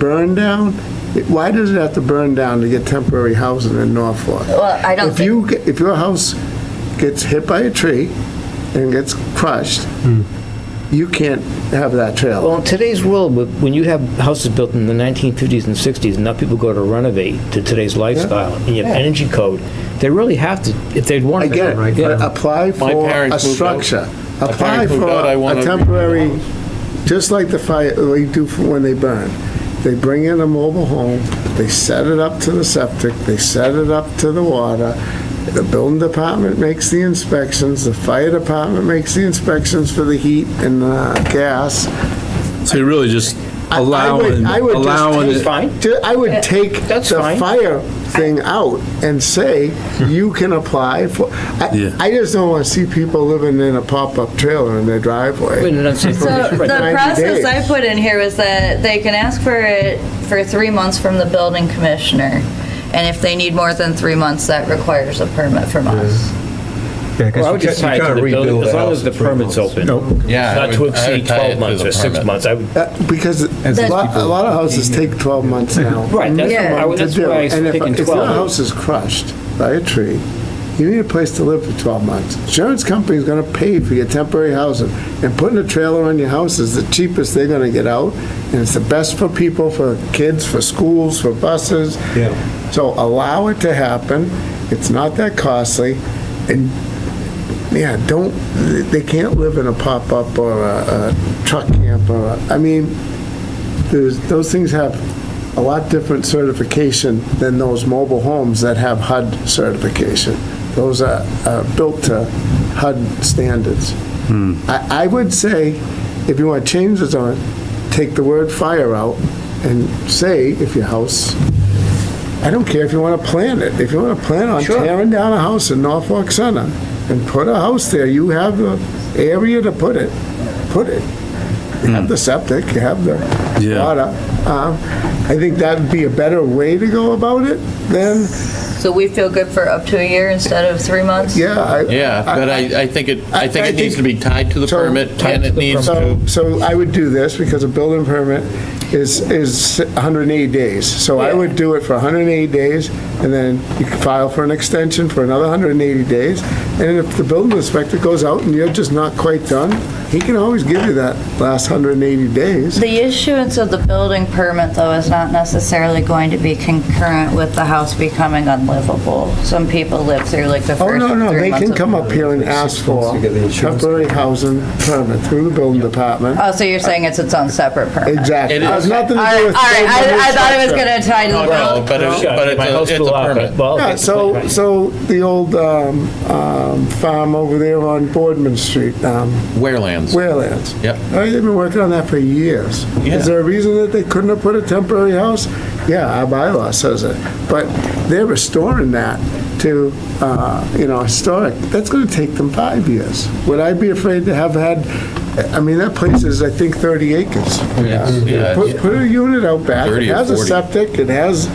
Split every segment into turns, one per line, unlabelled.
burn down? It- Why does it have to burn down to get temporary housing in Norfolk?
Well, I don't
If you, get- if your house gets hit by a tree and gets crushed, you can't have that trailer.
Well, in today's world, wh- when you have houses built in the 1950s and 60s, and now people go to renovate to today's lifestyle, and you have energy code, they really have to, if they'd want
I
to.
get it, but uh, apply for a
parents moved out.
structure.
My
Apply
parents moved
for
out, I wanna
a
redo the
temporary,
house.
just like the fire, they do for when they burn. They bring in a mobile home, they set it up to the septic, they set it up to the water. The building department makes the inspections, the fire department makes the inspections for the heat and uh, gas.
So you're really just
I- I would-
allowing,
I would just
allowing
take-
it.
fine.
ju- I would take
That's
the
fine.
fire thing out and say, you can apply for, I,
Yeah.
I just don't want to see people living in a pop-up trailer in their driveway.
So the
Right. 90
process I
days.
put in here was that they can ask for it for three months from the building commissioner. And if they need more than three months, that requires a permit from us.
Yeah, 'cause
Well, I would
you
just
can't-
tie
you
it to
can't
the
rebuild
building,
the
as long
house
as the
in three
permit's
months.
open.
Nope.
Yeah, I
Not to
would- I would
exceed
tie it
12
to
months
the
or six
permit.
months. I would,
Uh, Because a lot, a lot of houses take 12 months now.
Right, that's-
minimum
I would-
to
that's
do.
why I was
And if-
thinking
If your
12.
house is crushed by a tree, you need a place to live for 12 months. Insurance company's gonna pay for your temporary housing, and putting a trailer on your house is the cheapest they're gonna get out, and it's the best for people, for kids, for schools, for buses.
Yeah.
So allow it to happen, it's not that costly, and, yeah, don't, they can't live in a pop-up or a a truck camp or, a- I mean, there's, those things have a lot different certification than those mobile homes that have HUD certification. Those are, are built to HUD standards. I, I would say, if you want to change the zone, take the word fire out and say, if your house, I don't care if you want to plan it, if you want to plan on tearing down a house in Norfolk Center and put a house there, you have the area to put it, put it. You
Hmm.
have the septic, you have the
Yeah.
water. Um, I think that'd be a better way to go about it than,
So we feel good for up to a year instead of three months?
yeah. I-
Yeah, but I, I think it, I think it needs to be tied to the
So-
permit, and it needs to,
So, so I would do this, because a building permit is, is 180 days. So I would do it for 180 days, and then you can file for an extension for another 180 days. And if the building inspector goes out and you're just not quite done, he can always give you that last 180 days.
The issuance of the building permit, though, is not necessarily going to be concurrent with the house becoming unlivable. Some people live through like the first
Oh,
three months.
no, no, they can
of-
come up here and ask for temporary housing permit through the building department.
Oh, so you're saying it's its own separate permit?
Exactly.
It
It has
is.
nothing
All
to
right, all
do with.
right, I, I thought it was
structure.
gonna tie to the
no, no,
building.
but it's,
Yeah,
but
my
it's
house
a- it's
blew
a
up,
permit.
well,
Yeah,
Oh, okay,
so,
right.
so the old um, um, farm over there on Boardman Street, um,
Warelands.
Waylands.
Yep.
Uh, They've been working on that for years.
Yeah.
Is there a reason that they couldn't have put a temporary house? Yeah, our bylaw says it, but they're restoring that to, uh, you know, historic. That's going to take them five years. Would I be afraid to have had, I mean, that place is, I think, 30 acres.
It's- Oh, yeah,
Put, put a unit out back,
30
it
or
has a
40.
septic, it has,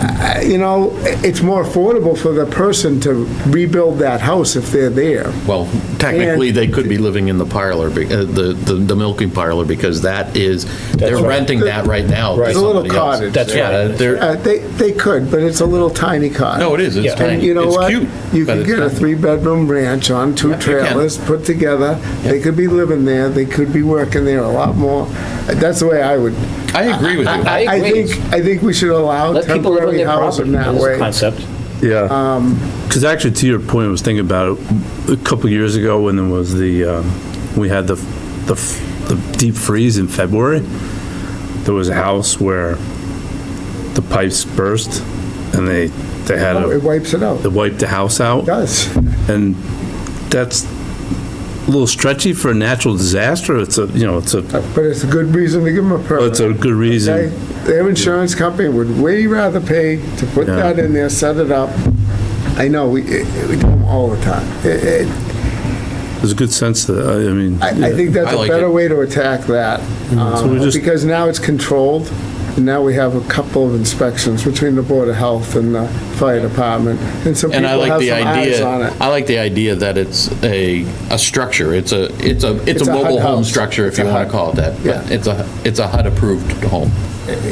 uh, you know, it's more affordable for the person to rebuild that house if they're there.
Well, technically, they could be living in the parlor, be- uh, the, the the milking parlor, because that is, they're renting that right now. to
It's a little
somebody else.
cottage.
That's
Yeah,
right.
they're,
Uh, They, they could, but it's a little tiny cottage.
no, it is, it's
Yeah.
tiny.
And you know
It's
what?
cute,
You
but
could
it's
get a
tiny.
three-bedroom ranch on two
Yep, you can.
trailers, put together. They
Yep.
could be living there, they could be working there a lot more. That's the way I would.
I agree with you.
I
I
agree.
think, I think we should allow
Let people live on
temporary
their property,
housing that
that's the
way.
concept.
Yeah. Because Um, actually, to your point, I was thinking about it, a couple of years ago when there was the, um, we had the, the f- the deep freeze in February, there was a house where the pipes burst and they, they had,
Oh, It
a-
wipes it out.
they
It
wiped the house out.
does.
And that's a little stretchy for a natural disaster. It's a, you know, it's a,
But it's a good reason to give them a permit.
it's a good
Okay?
reason.
Their insurance company would way rather pay to put
Yeah.
that in there, set it up. I know, we, it- it- we do them all the time. It- it-
There's a good sense to that. I I mean.
I, I think that's
I
a
like
better
it.
way to attack that,
So we
um,
just-
because now it's controlled, and now we have a couple of inspections between the Board of Health and the Fire Department, and so
And
people
I
have
like the
some eyes
idea,
on it.
I like the idea that it's a, a structure, it's a, it's a, it's
It's
a
a HUD
mobile home
house.
structure, if
It's a
you want
HUD.
to call it that.
Yeah.
But it's a, it's a HUD-approved home.